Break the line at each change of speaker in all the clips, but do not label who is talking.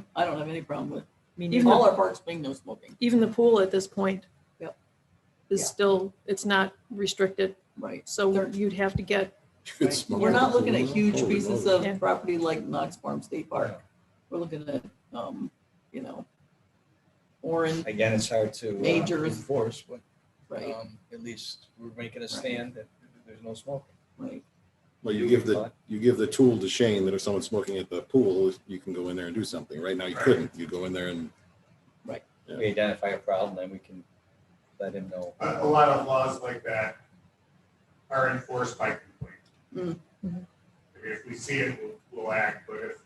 problem. I don't have any problem with
mean,
even all
all-
our parks being no smoking.
even the pool at this point.
Yep.
Is
Yeah.
still, it's not restricted,
Right.
so
They're-
you'd have to get,
Right. We're not looking at huge pieces of
Yeah.
property like Knox Farm State Park. We're looking at, um, you know, Orange,
Again, it's hard to uh,
Major.
enforce, but
right,
um, at least we're making a
Right.
stand that there's no smoking.
right.
Well, you give the, you give the tool to Shane that if someone's smoking at the pool, you can go in there and do something. Right now, you couldn't. You go in there and, Yeah.
We identify a problem, then we can let him know.
A, a lot of laws like that are enforced by complaint.
Mm.
I mean, if we see it, we'll, we'll act, but if,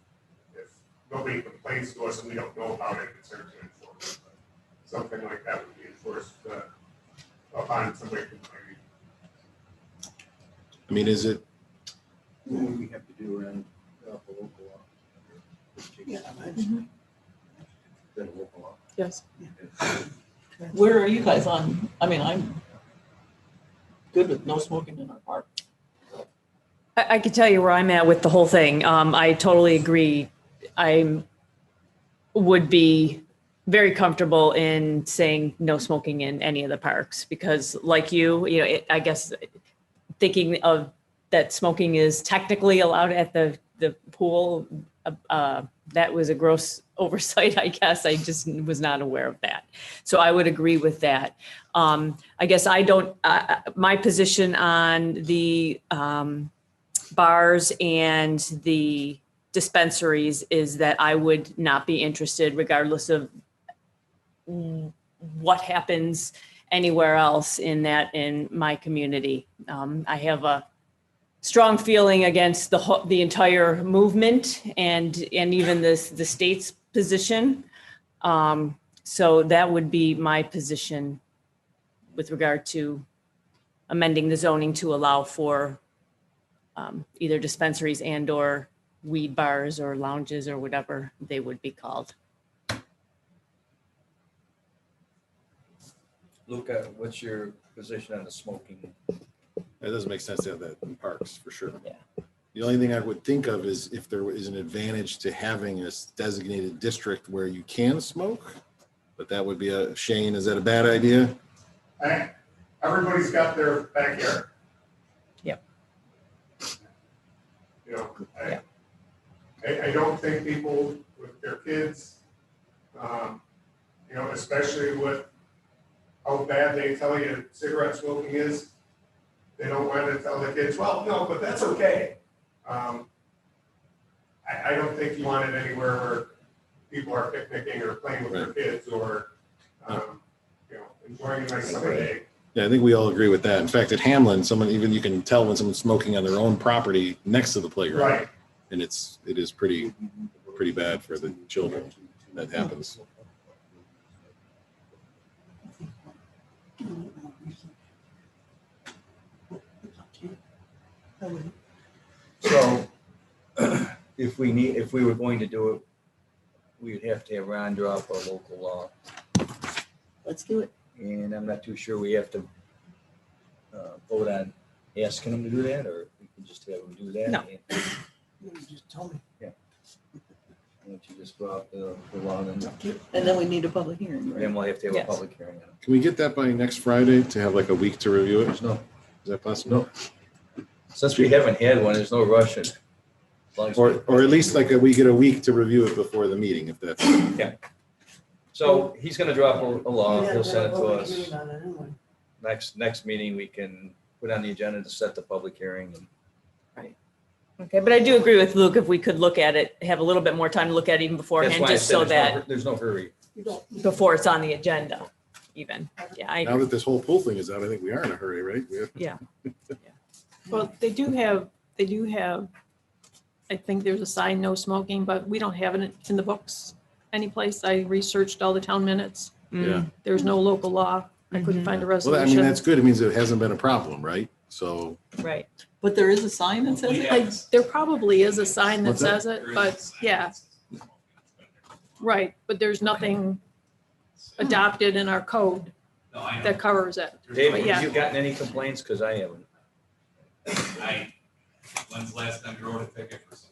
if nobody complains to us and we don't know about it, it's hard to enforce. it. But Something like that would be enforced, uh, upon somebody complaining.
I mean, is it,
What would we have to do around uh, the local law?
Yeah, Mm-hmm.
The local law.
yes,
Where are you guys on? I mean, I'm good with no smoking in our park.
I, I could tell you where I'm at with the whole thing. Um, I totally agree. I would be very comfortable in saying no smoking in any of the parks because, like you, you know, it, I guess thinking of that smoking is technically allowed at the the pool. uh, Uh, that was a gross oversight, I guess. I just was not aware of that. So I would agree with that. Um, I guess I don't, uh, my position on the, um, bars and the dispensaries is that I would not be interested regardless of mm, what happens anywhere else in that, in my community. Um, I have a strong feeling against the whole, the entire movement and, and even this, the state's position. Um, so that would be my position with regard to amending the zoning to allow for um, either dispensaries and or weed bars or lounges or whatever they would be called.
Luca, what's your position on the smoking?
it doesn't make sense to have that in parks for sure.
Yeah.
The only thing I would think of is if there is an advantage to having a designated district where you can smoke. But that would be a, Shane, is that a bad idea?
I- everybody's got their backyard.
Yep.
You know, I,
Yep.
I, I don't think people with their kids, um, you know, especially with how bad they tell you cigarette smoking is, they don't want to tell the kids, well, no, but that's okay. Um, I, I don't think you want it anywhere where people are picnicking or playing with their kids or, um, you know, enjoying a nice summer day.
Yeah, I think we all agree with that. In fact, at Hamlin, someone, even you can tell when someone's smoking on their own property next to the playground.
Right,
And it's, it is pretty, pretty bad for the children. That happens.
So if we need, if we were going to do it, we'd have to have Ron draw up a local law.
Let's do it.
And I'm not too sure we have to uh, vote on asking him to do that, or we can just have him do that.
No.
and- Why don't you just draw up the the law, and then
And then we need a public hearing, right?
then we'll have to have a
Yes.
public hearing on it.
Can we get that by next Friday to have like a week to review it? Is
There's no,
that possible?
since we haven't had one, there's no rush in it. As long as-
Or, or at least like a- we get a week to review it before the meeting if that's,
So he's gonna drop a a law, he'll send it to us. Next, next meeting, we can put on the agenda to set the public hearing. and
Okay, but I do agree with Luke, if we could look at it, have a little bit more time to look at it even
That's
beforehand,
why I
just
said
so
there's no
that,
hur- There's no hurry.
before it's on the agenda even. Yeah, I,
now that this whole pool thing is out, I think we are in a hurry, right? We have-
well, they do have, they do have, I think there's a sign, no smoking, but we don't have it in the books anyplace. I researched all the town minutes.
Yeah.
mm,
There's no local law. I
Mm-hmm.
couldn't
Mhm.
find a
Well, I mean,
resolution.
that's good. It means it hasn't been a problem, right? So,
right.
But there is a sign that says it.
I- There probably is a sign that
What's that?
says it, but yeah, right, but there's nothing adopted in our code
No, I know.
that covers it.
David,
Yeah.
have you gotten any complaints? Because I haven't.
I, when's the last time you wrote a ticket for